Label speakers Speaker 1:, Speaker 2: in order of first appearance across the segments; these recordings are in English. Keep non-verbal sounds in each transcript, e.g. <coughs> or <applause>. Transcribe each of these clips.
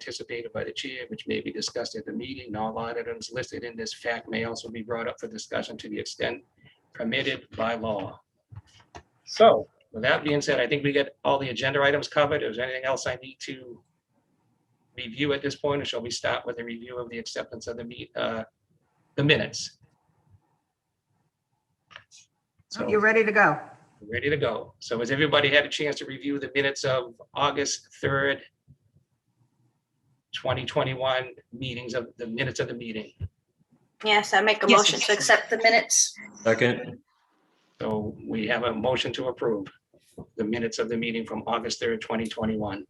Speaker 1: anticipated by the chair, which may be discussed at the meeting. and All line items listed in this fact may also be brought up for discussion to the extent permitted by law. So with that being said, I think we get all the agenda items covered. Is there anything else I need to review at this point, or shall we start with a review of the acceptance of the meet, uh, the minutes? So-
Speaker 2: You're ready to go.
Speaker 1: ready to go. So has everybody had a chance to review the minutes of August 3rd, 2021 meetings of, the minutes of the meeting?
Speaker 3: Yes, I make a
Speaker 2: Yes.
Speaker 3: motion to accept the minutes.
Speaker 4: Second,
Speaker 1: So we have a motion to approve the minutes of the meeting from August 3rd, 2021.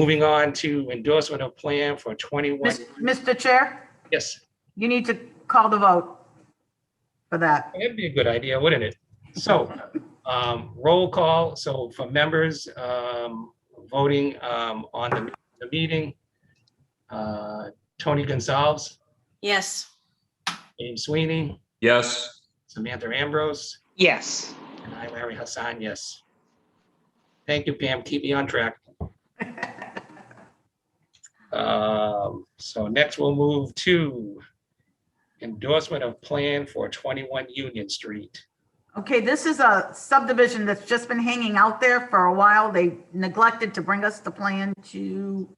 Speaker 1: Moving on to endorsement of plan for 21,
Speaker 2: Mis- Mr. Chair,
Speaker 1: yes,
Speaker 2: you need to call the vote for that.
Speaker 1: that'd be a good idea, wouldn't it? So, um, roll call, so for members, um, voting, um, on the, the meeting, uh, Tony Gonzalez,
Speaker 3: Yes.
Speaker 1: James Sweeney,
Speaker 4: yes.
Speaker 1: Samantha Ambrose,
Speaker 5: Yes.
Speaker 1: and I, Larry Hassan, yes. Thank you, Pam, keep me on track. Um, so next we'll move to endorsement of plan for twenty-one Union Street.
Speaker 2: Okay, this is a subdivision that's just been hanging out there for a while. They neglected to bring us the plan to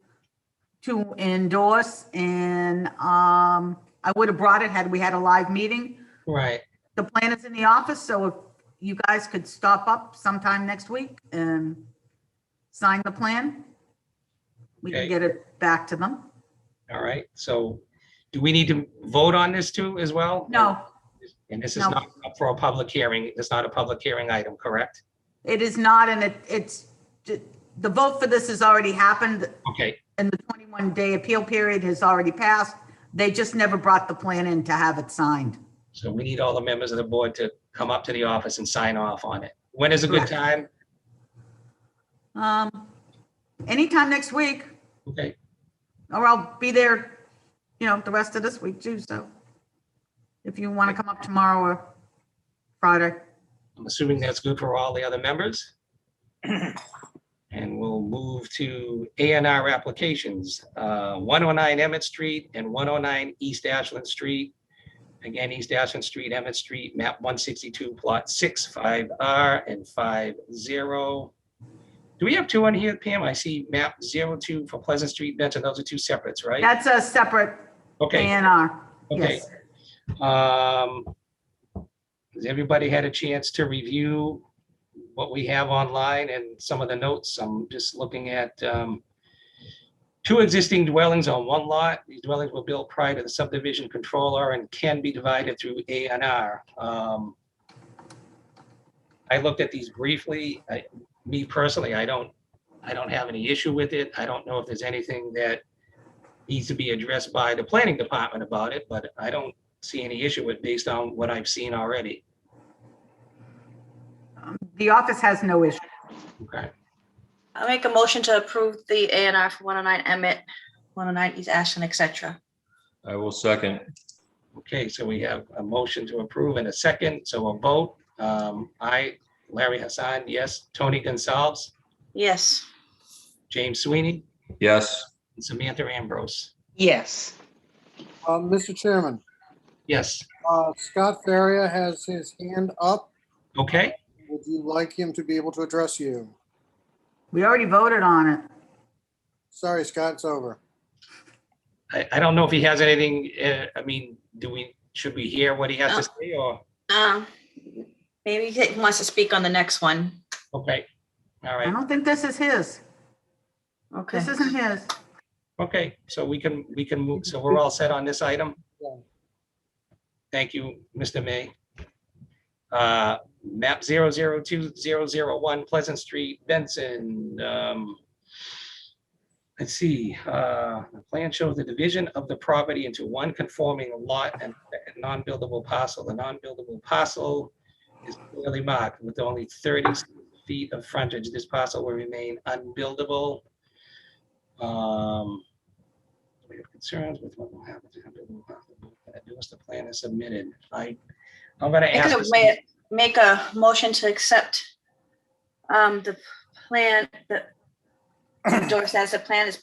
Speaker 2: to endorse and um, I would have brought it had we had a live meeting.
Speaker 1: Right.
Speaker 2: The plan is in the office, so if you guys could stop up sometime next week and sign the plan. We
Speaker 1: Okay.
Speaker 2: can get it back to them.
Speaker 1: All right, so do we need to vote on this too as well?
Speaker 2: No,
Speaker 1: And this is
Speaker 2: No.
Speaker 1: not up for a public hearing. It's not a public hearing item, correct?
Speaker 2: It is not, and it, it's, the vote for this has already happened,
Speaker 1: Okay,
Speaker 2: and the 21-day appeal period has already passed. They just never brought the plan in to have it signed.
Speaker 1: so we need all the members of the board to come up to the office and sign off on it. When is a good
Speaker 2: Correct.
Speaker 1: time?
Speaker 2: Um, Anytime next week,
Speaker 1: Okay,
Speaker 2: or I'll be there, you know, the rest of this week too, so if you want to come up tomorrow or Friday.
Speaker 1: I'm assuming that's good for all the other members? And we'll move to A and R applications, uh, 109 Emmett Street and 109 East Ashland Street. Again, East Ashland Street, Emmett Street, map 162, plot 6, 5R and 50. Do we have two on here, Pam? I see map 02 for Pleasant Street, Benton. Those are two separates, right?
Speaker 2: That's a separate A
Speaker 1: Okay,
Speaker 2: and R.
Speaker 1: okay.
Speaker 2: Yes,
Speaker 1: Um, Has everybody had a chance to review what we have online and some of the notes? I'm just looking at um, two existing dwellings on one lot. These dwellings were built prior to the subdivision controller and can be divided through A and R. Um, I looked at these briefly. I- Me personally, I don't, I don't have any issue with it. I don't know if there's anything that needs to be addressed by the planning department about it, but I don't see any issue with based on what I've seen already.
Speaker 2: the office has no issue.
Speaker 1: Okay,
Speaker 3: I make a motion to approve the A and R for 109 Emmett, 109 East Ashland, et cetera.
Speaker 4: I will second,
Speaker 1: okay, so we have a motion to approve and a second, so a vote. Um, I, Larry Hassan, yes. Tony Gonzalez,
Speaker 3: Yes.
Speaker 1: James Sweeney,
Speaker 4: yes.
Speaker 1: and Samantha Ambrose.
Speaker 5: Yes.
Speaker 6: Uh, Mr. Chairman,
Speaker 1: Yes,
Speaker 6: uh, Scott Faria has his hand up.
Speaker 1: okay,
Speaker 6: Would you like him to be able to address you?
Speaker 2: We already voted on it.
Speaker 6: Sorry, Scott, it's over.
Speaker 1: I, I don't know if he has anything, uh, I mean, do we, should we hear what he has to say or,
Speaker 3: Um, Maybe he wants to speak on the next one.
Speaker 1: okay, all
Speaker 2: I
Speaker 1: right,
Speaker 2: don't think this is his.
Speaker 3: Okay.
Speaker 2: This isn't his.
Speaker 1: okay, so we can, we can move, so we're all set on this item?
Speaker 6: Yeah.
Speaker 1: Thank you, Mr. May. Uh, Map 002001 Pleasant Street, Benson. um, Let's see, uh, the plan shows the division of the property into one conforming lot and a non-buildable parcel. The non-buildable parcel is clearly marked with only 30 feet of frontage. This parcel will remain unbuildable. Um, we have concerns with what will happen to unbuildable parcel. Unless the plan is submitted, I, I'm gonna
Speaker 3: Make
Speaker 1: ask.
Speaker 3: a
Speaker 1: for some-
Speaker 3: way- Make <coughs> a motion to accept um, the plan, the Endorse as the plan has been